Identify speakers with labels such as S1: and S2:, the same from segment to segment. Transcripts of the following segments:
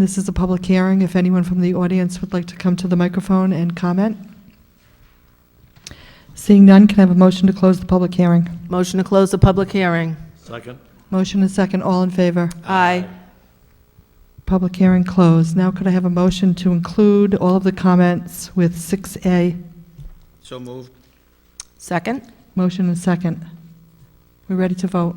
S1: This is a public hearing. If anyone from the audience would like to come to the microphone and comment? Seeing none, can I have a motion to close the public hearing?
S2: Motion to close the public hearing.
S3: Second?
S1: Motion and second, all in favor.
S2: Aye.
S1: Public hearing closed. Now could I have a motion to include all of the comments with 6A?
S3: So moved.
S2: Second?
S1: Motion and second. We're ready to vote.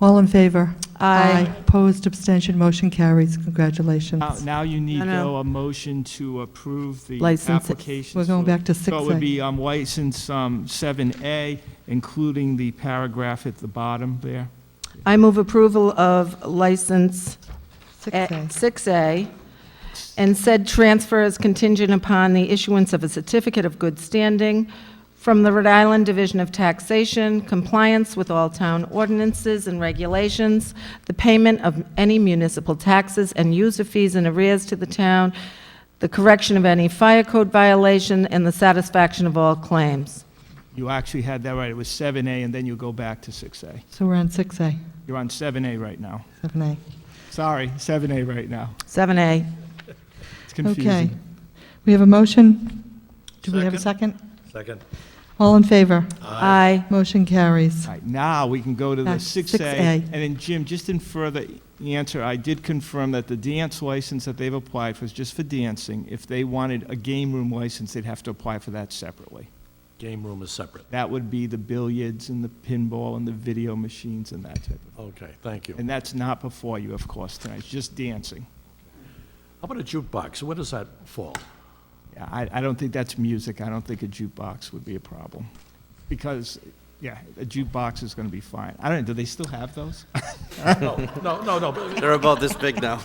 S1: All in favor? Opposed, abstention, motion carries. Congratulations.
S4: Now- Now you need,
S2: No, no.
S4: though, a motion to approve the
S2: License-
S4: application.
S1: We're going
S4: So-
S1: back to
S4: So it would
S1: 6A.
S4: be um, license um, 7A, including the paragraph at the bottom there.
S2: I move approval of license
S1: 6A.
S2: 6A, and said transfer is contingent upon the issuance of a certificate of good standing from the Rhode Island Division of Taxation, compliance with all town ordinances and regulations, the payment of any municipal taxes and user fees and arrears to the town, the correction of any fire code violation, and the satisfaction of all claims.
S4: You actually had that right. It was 7A, and then you go back to 6A.
S1: So we're on 6A,
S4: You're on 7A right now.
S1: 7A.
S4: Sorry, 7A right now.
S2: 7A.
S4: It's
S1: Okay.
S4: confusing.
S1: We have a motion. Do we have a second?
S3: Second?
S1: All in favor?
S2: Aye.
S1: Motion carries.
S4: All right, now we can go to the
S1: Back to
S4: 6A.
S1: 6A.
S4: And then Jim, just in further answer, I did confirm that the dance license that they've applied for is just for dancing. If they wanted a game room license, they'd have to apply for that separately.
S3: Game room is separate.
S4: That would be the billiards and the pinball and the video machines and that type of.
S3: Okay, thank you. How
S4: And that's not before you, of course, tonight, it's just dancing.
S3: about a jukebox? Where does that fall?
S4: Yeah, I, I don't think that's music, I don't think a jukebox would be a problem. Because, yeah, a jukebox is gonna be fine. I don't, do they still have those?
S3: No, no, no, no, but-
S5: They're about this big now.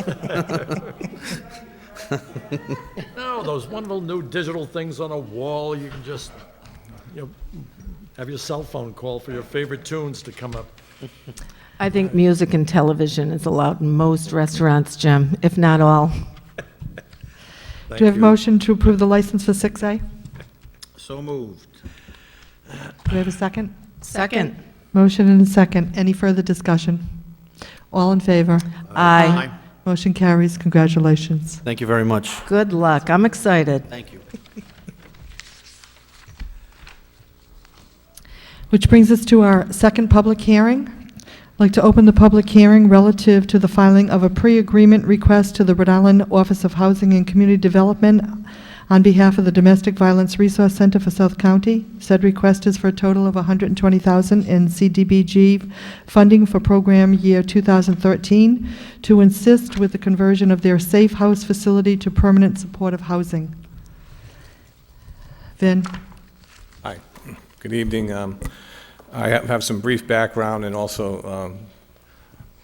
S3: no, those wonderful new digital things on a wall, you can just, you know, have your cell phone call for your favorite tunes to come up.
S2: I think music and television is allowed in most restaurants, Jim, if not all.
S3: Thank
S1: Do we have a motion to approve the license for 6A? Do
S5: So moved.
S1: we have a second?
S2: Second.
S1: Motion and a second. Any further discussion? All in favor?
S2: Aye.
S1: Motion carries. Congratulations.
S5: Thank you very much.
S2: Good luck. I'm excited.
S5: Thank you.
S1: Which brings us to our second public hearing. I'd like to open the public hearing relative to the filing of a pre-agreement request to the Rhode Island Office of Housing and Community Development on behalf of the Domestic Violence Resource Center for South County. Said request is for a total of $120,000 in CDBG funding for program year 2013 to assist with the conversion of their safe house facility to permanent supportive housing. Vin?
S6: Hi, good evening. Um, I ha- have some brief background and also um,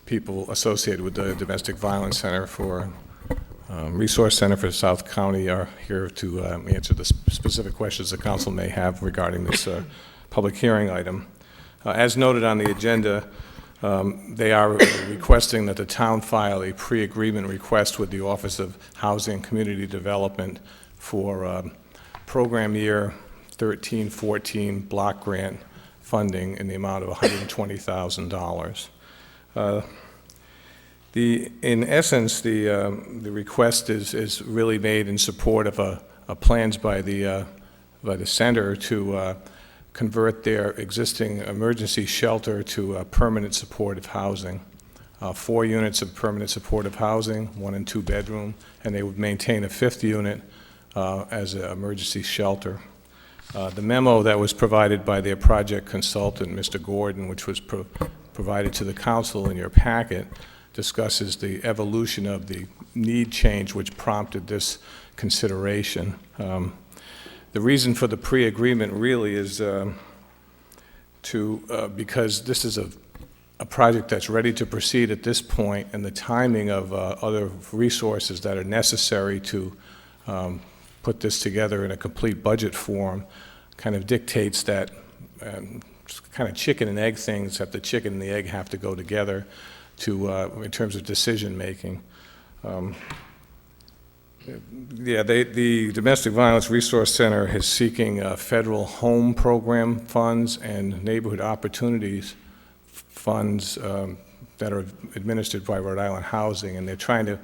S6: people associated with the Domestic Violence Center for, um, Resource Center for South County are here to um, answer the sp- specific questions the council may have regarding this uh, public hearing item. Uh, As noted on the agenda, um, they are requesting that the town file a pre-agreement request with the Office of Housing and Community Development for um, program year 1314 block grant funding in the amount of $120,000. Uh, The, in essence, the, um, the request is, is really made in support of a, a plans by the, uh, by the center to uh, convert their existing emergency shelter to uh, permanent supportive housing. Uh, Four units of permanent supportive housing, one and two bedroom, and they would maintain a fifth unit uh, as an emergency shelter. Uh, The memo that was provided by their project consultant, Mr. Gordon, which was pro- provided to the council in your packet, discusses the evolution of the need change which prompted this consideration. Um, The reason for the pre-agreement really is um, to, uh, because this is a a project that's ready to proceed at this point, and the timing of uh, other resources that are necessary to um, put this together in a complete budget form kind of dictates that um, kind of chicken and egg things, that the chicken and the egg have to go together to, uh, in terms of decision-making. Yeah, they, the Domestic Violence Resource Center is seeking uh, federal home program funds and neighborhood opportunities funds um, that are administered by Rhode Island Housing, and they're trying to